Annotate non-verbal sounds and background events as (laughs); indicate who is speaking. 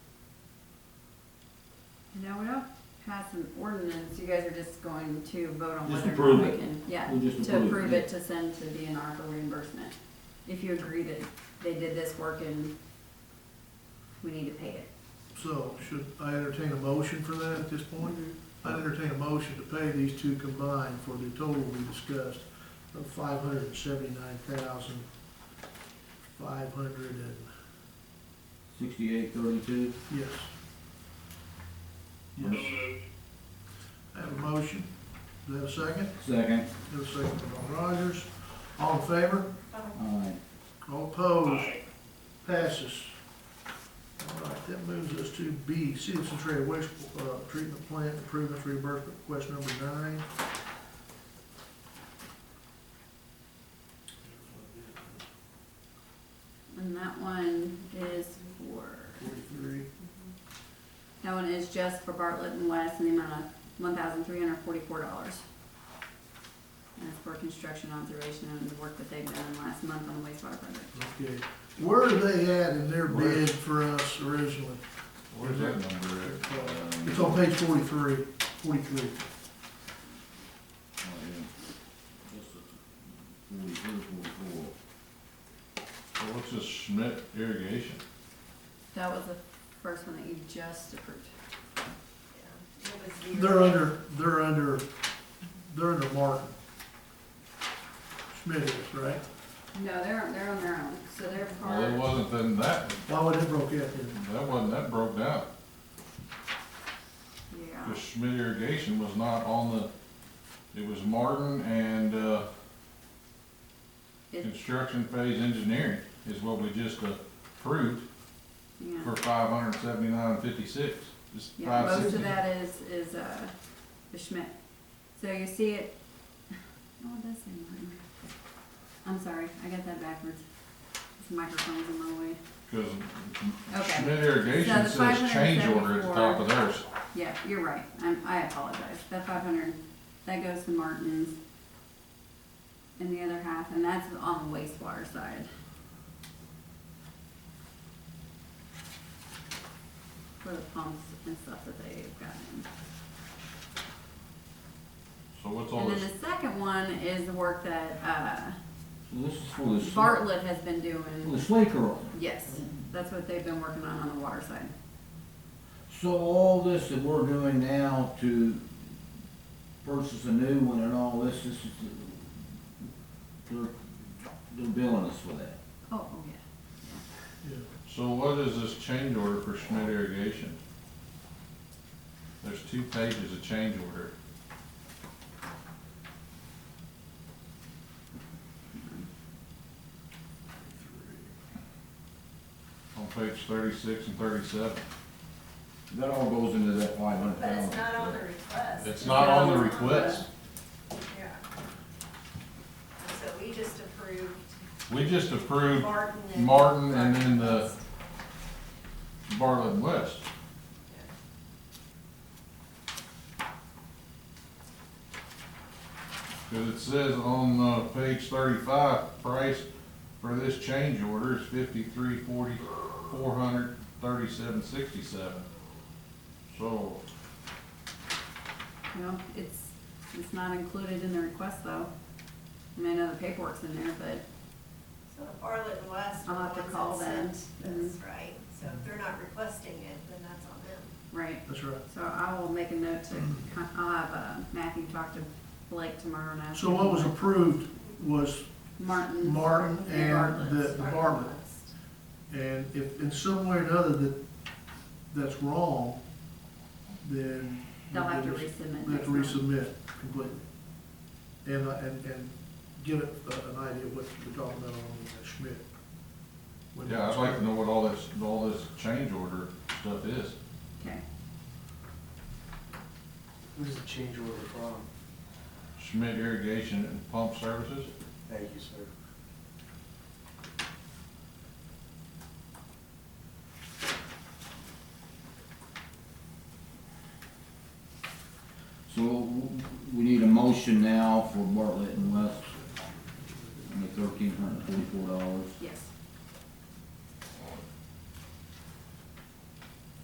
Speaker 1: No, we don't pass an ordinance, you guys are just going to vote on
Speaker 2: Just
Speaker 1: whether or
Speaker 2: approve
Speaker 1: not we
Speaker 2: it.
Speaker 1: can, yeah,
Speaker 2: We'll just
Speaker 1: to
Speaker 2: approve it,
Speaker 1: approve
Speaker 2: yeah.
Speaker 1: it to send to DNR for reimbursement. If you agree that they did this work and we need to pay it.
Speaker 3: So should I entertain a motion for that at this point?
Speaker 1: Mhm.
Speaker 3: I entertain a motion to pay these two combined for the total we discussed of five hundred and seventy-nine thousand, five hundred and,
Speaker 2: Sixty-eight thirty-two.
Speaker 3: yes. Yes, I have a motion. Do I have a second?
Speaker 2: Second.
Speaker 3: Do I have a second from Ron Rogers. All in favor?
Speaker 2: Aye.
Speaker 3: All opposed? Passes. All right, that moves us to B, Citizen Trade Waste uh, Treatment Plant Improvements Reimbursement Request Number Nine.
Speaker 1: And that one is for,
Speaker 3: Forty-three.
Speaker 1: that one is just for Bartlett and West in the amount of one thousand three hundred forty-four dollars. And it's for construction observation and the work that they've done last month on the wastewater project.
Speaker 3: Okay. Where are they at in their
Speaker 4: Where?
Speaker 3: bid for us originally?
Speaker 4: Where's that number at? Um,
Speaker 3: It's on page forty-three, forty-three.
Speaker 4: oh, yeah. Forty-three, forty-four. So what's this Schmidt irrigation?
Speaker 1: That was the first one that you just approved.
Speaker 3: They're under, they're under, they're under Martin. Schmidt is, right?
Speaker 1: No, they're, they're on their own, so they're
Speaker 4: Well, it
Speaker 1: part,
Speaker 4: wasn't then that,
Speaker 3: Why would it broke out then?
Speaker 4: that wasn't, that broke down.
Speaker 1: yeah.
Speaker 4: Because Schmidt irrigation was not on the, it was Martin and, uh,
Speaker 1: It-
Speaker 4: construction phase engineering is what we just approved
Speaker 1: Yeah,
Speaker 4: for five hundred seventy-nine fifty-six. It's
Speaker 1: yeah,
Speaker 4: five
Speaker 1: most of
Speaker 4: sixty.
Speaker 1: that is, is, uh, the Schmidt. So you see it, (laughs) oh, it does say mine. I'm sorry, I got that backwards. This microphone's in my way.
Speaker 4: Because
Speaker 1: Okay.
Speaker 4: Schmidt irrigation
Speaker 1: So the
Speaker 4: says change order at the top
Speaker 1: 574.
Speaker 4: of theirs.
Speaker 1: Yeah, you're right, I'm, I apologize. That five hundred, that goes to Martin's. And the other half, and that's on the wastewater side. For the pumps and stuff that they've gotten.
Speaker 4: So what's all
Speaker 1: And then
Speaker 4: this,
Speaker 1: the second one is the work that,
Speaker 2: So this is for the.
Speaker 1: uh,
Speaker 2: sl-
Speaker 1: Bartlett has been
Speaker 2: For the
Speaker 1: doing.
Speaker 2: slate roll.
Speaker 1: Yes, that's what they've been working on on the water side.
Speaker 2: So all this that we're doing now to purchase a new one and all this, this is, the- they're, they're billing us for that.
Speaker 1: Oh, oh, yeah.
Speaker 3: Yeah.
Speaker 4: so what is this change order for Schmidt irrigation? There's two pages of change order. On page thirty-six and thirty-seven.
Speaker 2: That all goes into that five hundred
Speaker 5: But
Speaker 2: thousand.
Speaker 5: it's not on the request.
Speaker 4: It's not on the request.
Speaker 5: Yeah. So we just approved
Speaker 4: We just approved
Speaker 5: Martin and.
Speaker 4: Martin and then the Bartlett and West. Cause it says on, uh, page thirty-five, price for this change order is fifty-three forty, four hundred thirty-seven sixty-seven. So,
Speaker 1: You know, it's, it's not included in the request though. I mean, I know the paperwork's in there, but
Speaker 5: So Bartlett and West.
Speaker 1: I'll have to call them. Mm-hmm.
Speaker 5: That's right. So if they're not requesting it, then that's on them.
Speaker 1: Right,
Speaker 3: That's right.
Speaker 1: so I will make a note to, con- I'll have, uh, Matthew talk to Blake tomorrow and ask.
Speaker 3: So what was approved was,
Speaker 1: Martin.
Speaker 3: Martin and the-
Speaker 1: Bartlett's.
Speaker 3: the Bartlett. and if in some way or another that, that's wrong, then.
Speaker 1: They'll have to
Speaker 3: we'll just-
Speaker 1: resubmit
Speaker 3: They have
Speaker 1: next
Speaker 3: to
Speaker 1: time.
Speaker 3: resubmit completely. And, uh, and, and give it uh, an idea of what we're talking about on uh, Schmidt. When-
Speaker 4: yeah, I'd like to know what all this, all this change order stuff is.
Speaker 1: Okay,
Speaker 6: Who's the change order from?
Speaker 4: Schmidt Irrigation and Pump Services?
Speaker 6: Thank you, sir.
Speaker 2: So w- we need a motion now for Bartlett and West on the thirteen hundred forty-four dollars.
Speaker 1: yes.